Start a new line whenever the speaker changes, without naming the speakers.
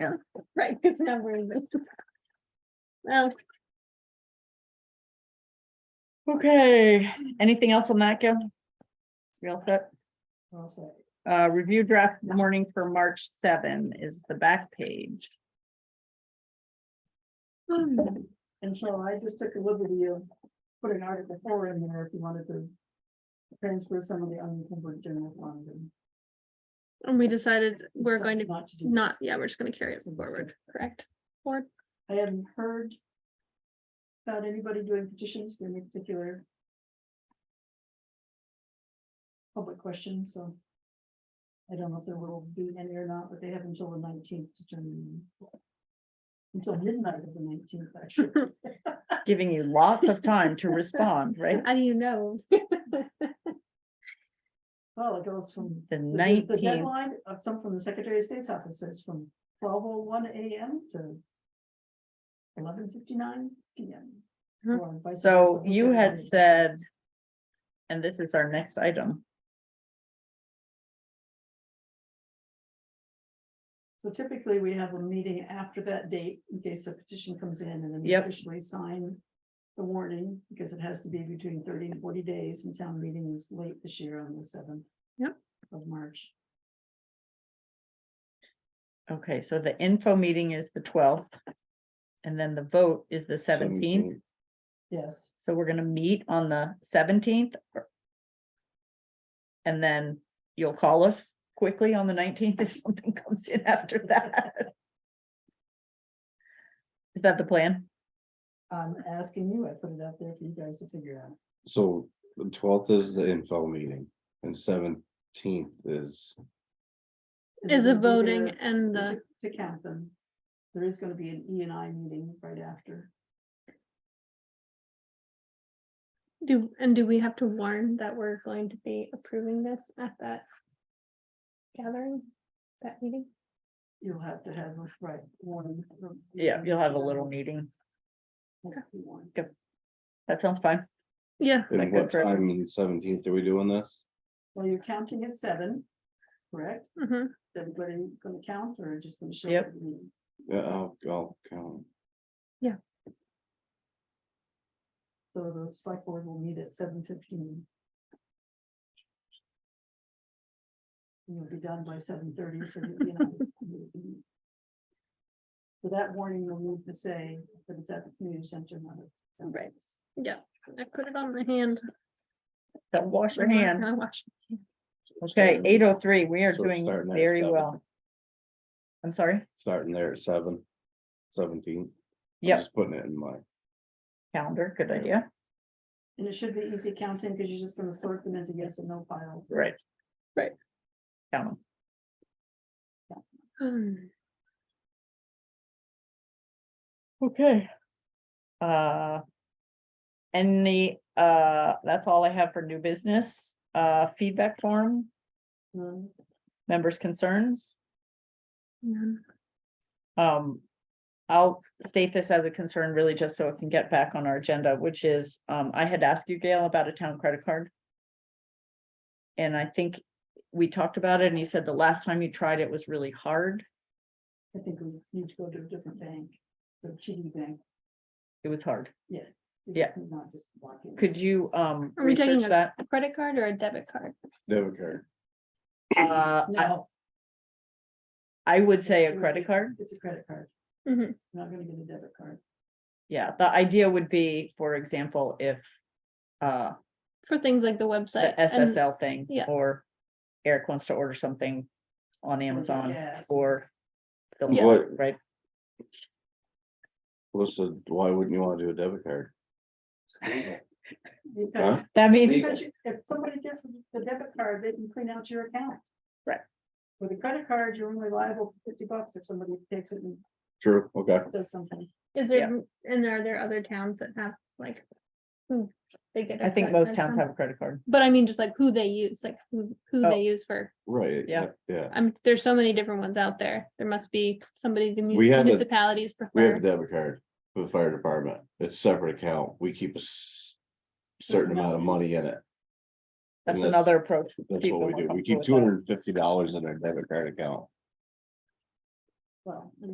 Right, it's not very good. Well,
Okay, anything else on that, Gil? Real quick, uh, review draft morning for March seven is the back page.
And so I just took a liberty of put an article four in there if you wanted to transfer some of the unencumbered general fund. and-
and we decided we're going to
Not to do.
not, yeah, we're just gonna carry it forward, correct? Or,
I haven't heard about anybody doing petitions for any particular public question, so I don't know if there will be any or not, but they have until the nineteenth to turn them in. Until midnight of the nineteenth, actually.
Giving you lots of time to respond, right?
how do you know?
Well, it goes from
The
The de- The
nineteenth,
deadline of some from the Secretary of State's office says from twelve oh one AM to eleven fifty-nine PM.
Mhm.
or vice
so
versa,
you
whichever
had
one it is.
said. And this is our next item.
So typically, we have a meeting after that date in case a petition comes in and then we
Yep.
officially sign the warning, because it has to be between thirty and forty days, and town meeting is late this year on the seventh
Yep.
of March.
Okay, so the info meeting is the twelfth. And then the vote is the seventeenth.
Yes,
So we're gonna meet on the seventeenth. And then you'll call us quickly on the nineteenth if something comes in after that. Is that the plan?
I'm asking you, I put it out there for you guys to figure out.
So the twelfth is the info meeting and seventeenth is,
it
Is a
gonna be
voting
there-
and uh, the,
to to count them. There is gonna be an E and I meeting right after.
do, and do we have to warn that we're going to be approving this at that gathering, that meeting?
You'll have to have, a right, one. um,
Yeah, you'll have a little meeting.
has to be one.
That sounds fine.
Yeah,
that
and
good
what
for-
time on the seventeenth are we doing this?
Well, you're counting at seven, correct?
mhm.
Is Everybody gonna count or just gonna show? up
Yep.
at the meeting?
Yeah, I'll, I'll count.
So the select board will meet at seven fifteen. You'll be done by seven thirty, so you you know. So that warning will need to say that it's at the community center, not at.
Right. yeah, I put it on my hand.
Don't wash your
I'm not
hand.
gonna wash-
Okay, eight oh three, we are
So
doing
starting at
very
7.
well. I'm sorry,
Starting there at seven, seventeen.
Yep.
Just putting it in my,
calendar, good idea.
And it should be easy counting because you're just gonna sort them into yes and no files.
Right.
Right.
Count 'em.
Hmm.
Okay. Uh. And the, uh, that's all I have for new business, uh, feedback form,
Um,
members' concerns.
Mhm.
Um, I'll state this as a concern really just so it can get back on our agenda, which is, um, I had asked you, Gail, about a town credit card. And I think we talked about it and you said the last time you tried it was really hard.
I think we need to go to a different bank, the TD bank.
It was hard.
We
Yeah.
just need Not just walk in.
Could you, um,
Are we taking
research that?
A credit card or a debit card?
debit card.
Uh, I-
No,
I would say a
Would
credit
be-
card.
it's a credit card.
Mhm.
We're Not gonna get a debit card.
Yeah, the idea would be, for example, if uh
For things like the website.
the
and-
SSL thing
yeah. Oh,
or Eric wants to order something on Amazon
Yes.
or the
Yeah.
like, right?
What's the, why wouldn't you wanna do a debit card?
Because
That means,
because you- if somebody gets the debit card, they can clean out your account.
Right.
With a credit card, you're only liable for fifty bucks if somebody takes it and
True, okay.
does something.
Is there, and are there other towns that have like? who they get?
I
their
think
credit
most
card
towns
from?
have a credit card.
But I mean, just like who they use, like who, who
Oh.
they use for,
Right.
Yeah.
Yeah,
I'm, there's so many different ones out there. There must be somebody the mu-
We have a-
municipalities
we have a
prefer.
debit card for the fire department. It's separate account. We keep a s- certain amount of money in it.
That's
Unless-
another approach.
That's
People
what we
more
do. We
comfortable
keep
with
two
that.
hundred and fifty dollars in our debit card account.
well, and